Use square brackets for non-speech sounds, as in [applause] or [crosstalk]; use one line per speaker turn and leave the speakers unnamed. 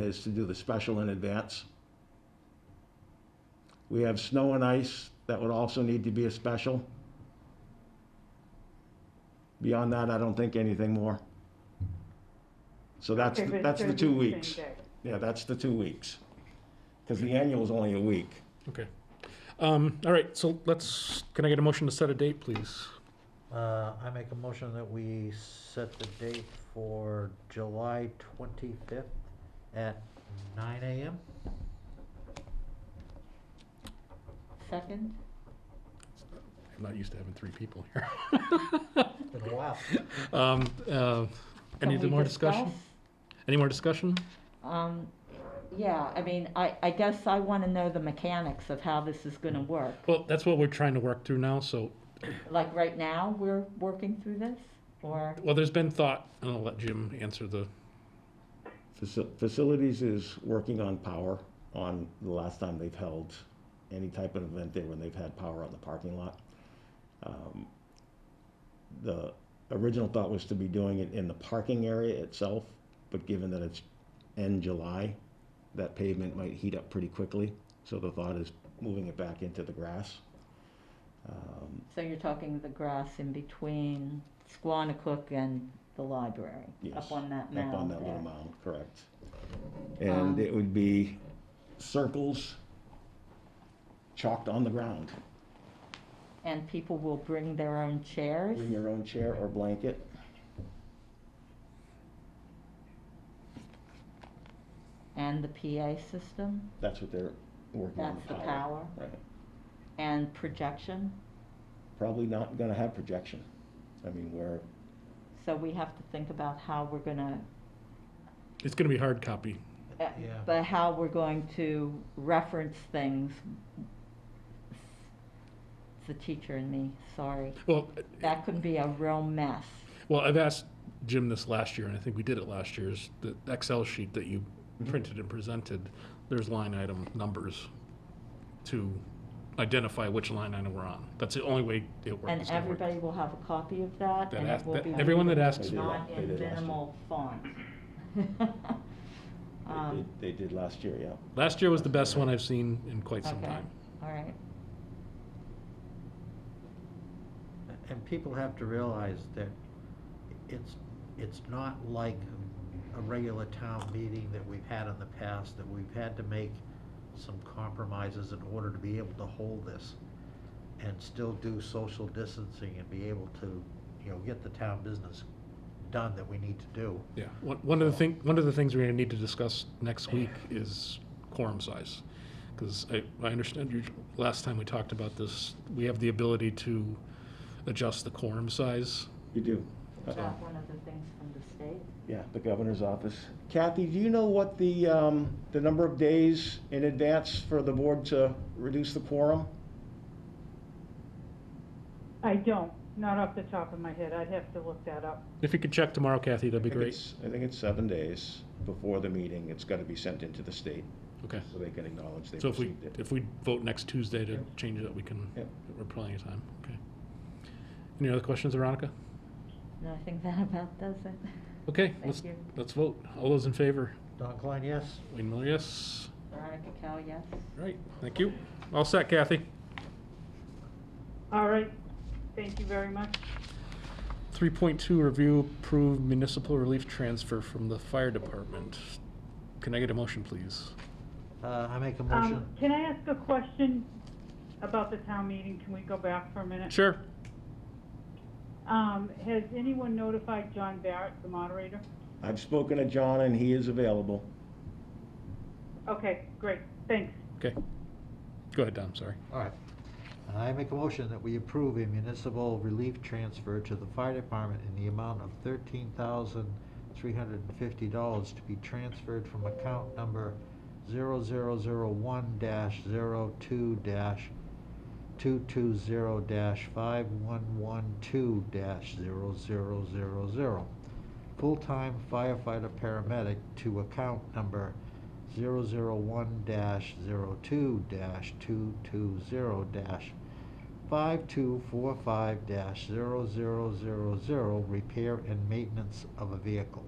is to do the special in advance. We have snow and ice, that would also need to be a special. Beyond that, I don't think anything more. So that's,
Okay, but
that's the
it's
two
gonna be the
weeks.
same day.
Yeah, that's the two weeks. Because the annual is only a week.
Okay. Um, all right, so let's, can I get a motion to set a date, please?
Uh, I make a motion that we set the date for July twenty-fifth at nine AM.
Second?
I'm not used to having three people here. [laughs]
Been a while.
Um, uh, any
Can we
more discussion?
discuss?
Any more discussion?
Um, yeah, I mean, I, I guess I wanna know the mechanics of how this is gonna work.
Well, that's what we're trying to work through now, so,
Like, right now, we're working through this, or?
well, there's been thought, and I'll let Jim answer the,
Faci- Facilities is working on power on the last time they've held any type of event there when they've had power on the parking lot. Um, The original thought was to be doing it in the parking area itself, but given that it's end July, that pavement might heat up pretty quickly. So the thought is moving it back into the grass. Um,
So you're talking the grass in between Squanicook and the library?
Yes,
Up on that mound Um,
Up on that little
there.
mound, correct. And it would be circles chalked on the ground.
And people will bring their own chairs?
Bring your own chair or blanket.
And the PA system?
That's what they're working on.
That's the power?
Right.
And projection?
Probably not gonna have projection. I mean, we're,
So we have to think about how we're gonna,
it's gonna be hard copy.
uh,
Yeah.
but how we're going to reference things. It's the teacher and me, sorry.
Well,
That could be a real mess.
well, I've asked Jim this last year, and I think we did it last year, is the Excel sheet that you printed and presented, there's line item numbers to identify which line item we're on. That's the only way it works.
And
it's gonna work.
everybody will have a copy of that
That
and it
ask-
will
that-
be.
everyone that asks-
Not in
They did last year.
minimal font.
they
[laughs] Um,
did- they did last year, yeah.
Last year was the best one I've seen in quite some
Okay.
time.
All right,
[laughs] And people have to realize that it's, it's not like a regular town meeting that we've had in the past, that we've had to make some compromises in order to be able to hold this and still do social distancing and be able to, you know, get the town business done that we need to do.
Yeah, one, one of the thing, one of the things we're gonna need to discuss next week is quorum size. Because I, I understand you, last time we talked about this, we have the ability to adjust the quorum size.
You do.
is
Uh-oh.
that one of the things from the state?
Yeah, the governor's office. Kathy, do you know what the, um, the number of days in advance for the board to reduce the quorum?
I don't, not off the top of my head, I'd have to look that up.
If you could check tomorrow, Kathy, that'd be
I think
great.
it's- I think it's seven days before the meeting. It's got to be sent into the state
Okay,
so they can acknowledge they
so if we,
received it.
if we vote next Tuesday to change that, we can,
Yep.
we're plenty of time, okay. Any other questions, Veronica?
No, I think that about does it.
Okay, let's,
Thank you.
let's vote. All those in favor?
Don Klein, yes?
Wayne Miller, yes?
Veronica Cal, yes?
Right, thank you. All set, Kathy?
All right, thank you very much.
3.2, review approved municipal relief transfer from the fire department. Can I get a motion, please?
Uh, I make a motion.
Um, can I ask a question about the town meeting? Can we go back for a minute?
Sure.
Um, has anyone notified John Barrett, the moderator?
I've spoken to John and he is available.
Okay, great, thanks.
Okay. Go ahead, Dom, sorry.
All right. I make a motion that we approve a municipal relief transfer to the fire department in the amount of thirteen thousand three hundred and fifty dollars to be transferred from account number zero zero zero one dash zero two dash two two zero dash five one one two dash zero zero zero zero. Full-time firefighter paramedic to account number 001-02-220-5245-0000, repair and maintenance of a vehicle.